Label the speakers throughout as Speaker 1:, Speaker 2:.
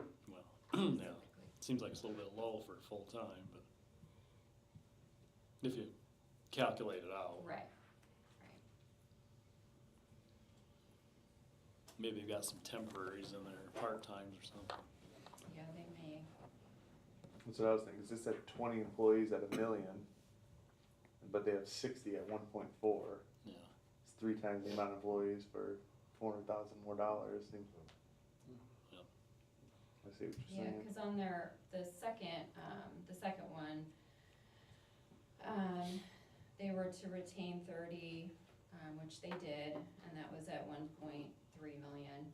Speaker 1: uh,
Speaker 2: Yeah, seems like it's a little bit low for full-time, but if you calculate it out,
Speaker 1: Right,
Speaker 2: maybe you've got some temporaries in there, part-times or something.
Speaker 1: yeah, they may,
Speaker 3: That's what I was thinking, cause it said twenty employees at a million, but they have sixty at one point four.
Speaker 2: Yeah,
Speaker 3: It's three times the amount of employees for four hundred thousand more dollars, seems.
Speaker 2: Yep.
Speaker 3: I see what you're
Speaker 1: yeah,
Speaker 3: saying.
Speaker 1: cause on their, the second, um, the second one, um, they were to retain thirty, um, which they did, and that was at one point three million.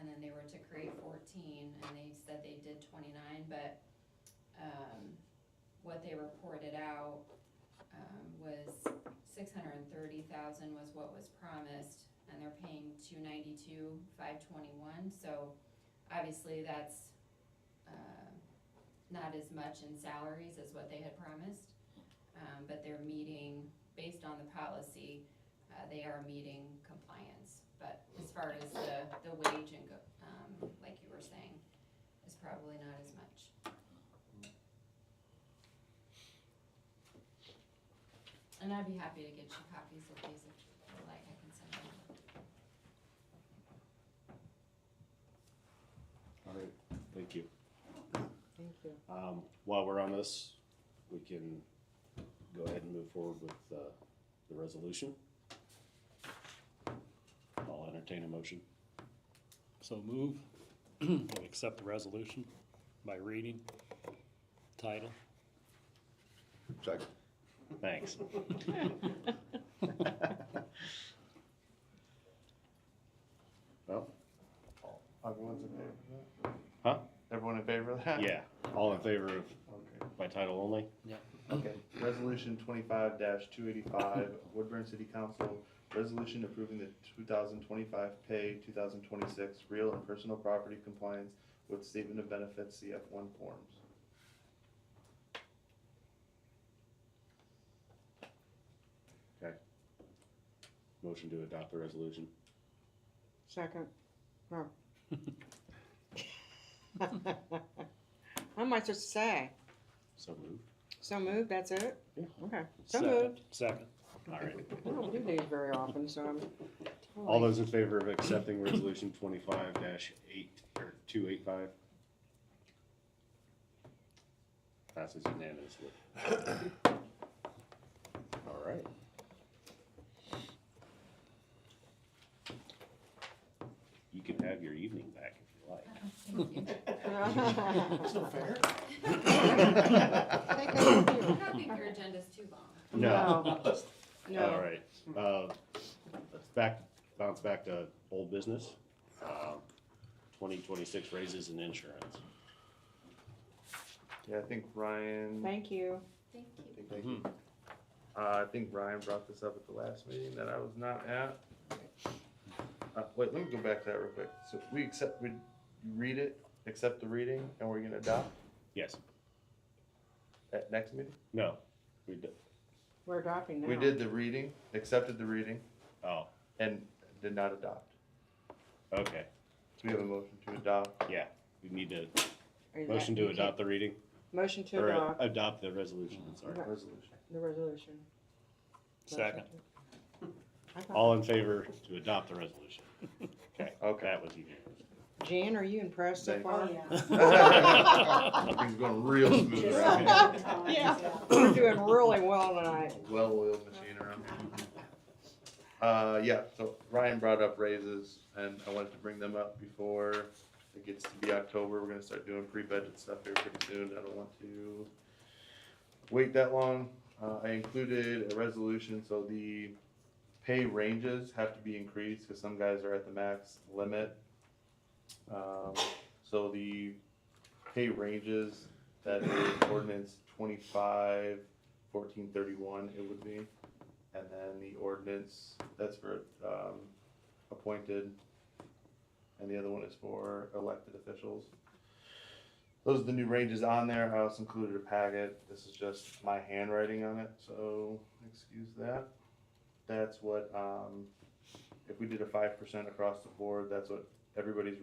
Speaker 1: And then they were to create fourteen, and they said they did twenty-nine, but, um, what they reported out, um, was six hundred and thirty thousand was what was promised, and they're paying two ninety-two, five twenty-one, so obviously that's, uh, not as much in salaries as what they had promised. Um, but they're meeting, based on the policy, uh, they are meeting compliance, but as far as the, the wage and go, um, like you were saying, is probably not as much. And I'd be happy to get you copies of these if you like, I can send them.
Speaker 4: All right, thank you.
Speaker 5: Thank you.
Speaker 4: Um, while we're on this, we can go ahead and move forward with, uh, the resolution. I'll entertain a motion.
Speaker 2: so move, and accept the resolution by reading title.
Speaker 6: Second.
Speaker 4: Thanks. Well,
Speaker 3: Oh, Everyone's in favor of that?
Speaker 4: Huh?
Speaker 3: Everyone in favor of that?
Speaker 4: yeah, all in favor of
Speaker 3: Okay.
Speaker 4: by title only?
Speaker 3: Okay, resolution twenty-five two eighty-five, Woodburn City Council, resolution approving the two thousand twenty-five pay, two thousand twenty-six real and personal property compliance with statement of benefits CF one forms.
Speaker 4: Motion to adopt the resolution.
Speaker 5: Second, no. How much to say?
Speaker 4: So moved.
Speaker 5: So moved, that's it?
Speaker 4: Yeah.
Speaker 5: Okay, so
Speaker 2: Second-
Speaker 5: moved.
Speaker 2: Second,
Speaker 4: All right.
Speaker 5: I don't do these very often, so I'm.
Speaker 4: All those in favor of accepting resolution twenty-five dash eight, or two eight five? Passes unanimously. All right. You can have your evening back if
Speaker 1: Thank you.
Speaker 5: That's not fair.
Speaker 1: I don't think your agenda's too long.
Speaker 4: you like.
Speaker 5: No.
Speaker 4: All
Speaker 5: No,
Speaker 4: right, uh, let's back, bounce back to old business. Uh, Twenty twenty-six raises and insurance.
Speaker 3: Yeah, I think Ryan.
Speaker 5: thank you.
Speaker 1: Thank you.
Speaker 3: I think- Uh, I think Ryan brought this up at the last meeting that I was not at. Uh, wait, let me go back to that real quick. So we accept, we read it, accept the reading, and we're gonna adopt
Speaker 4: Yes,
Speaker 3: at next meeting?
Speaker 4: no, we did,
Speaker 5: We're adopting now.
Speaker 3: We did the reading, accepted the reading,
Speaker 4: oh,
Speaker 3: and did not adopt.
Speaker 4: okay.
Speaker 3: So we have a motion to adopt.
Speaker 4: Yeah, we need to,
Speaker 5: Are you-
Speaker 4: motion to
Speaker 5: you can't-
Speaker 4: adopt the reading,
Speaker 5: Motion to
Speaker 4: or uh,
Speaker 5: adopt
Speaker 4: adopt the resolution, I'm sorry.
Speaker 5: Right.
Speaker 3: Resolution.
Speaker 5: the resolution.
Speaker 2: second,
Speaker 5: I thought-
Speaker 4: All in favor to adopt the resolution? Okay,
Speaker 3: Okay.
Speaker 4: that was easy.
Speaker 5: Jan, are you impressed so
Speaker 3: Thank-
Speaker 5: far?
Speaker 3: Things going real smooth around here.
Speaker 5: Oh, Yeah, we're doing really well tonight.
Speaker 3: well-oiled machine around here. Uh, yeah, so Ryan brought up raises, and I wanted to bring them up before it gets to be October, we're gonna start doing pre-budget stuff here pretty soon, I don't want to wait that long, uh, I included a resolution, so the pay ranges have to be increased, cause some guys are at the max limit. Um, so the pay ranges, that is ordinance twenty-five fourteen thirty-one it would be. And then the ordinance, that's for, um, appointed. And the other one is for elected officials. Those are the new ranges on there. I also included a packet. This is just my handwriting on it, so excuse that. That's what, um, if we did a five percent across the board, that's what everybody's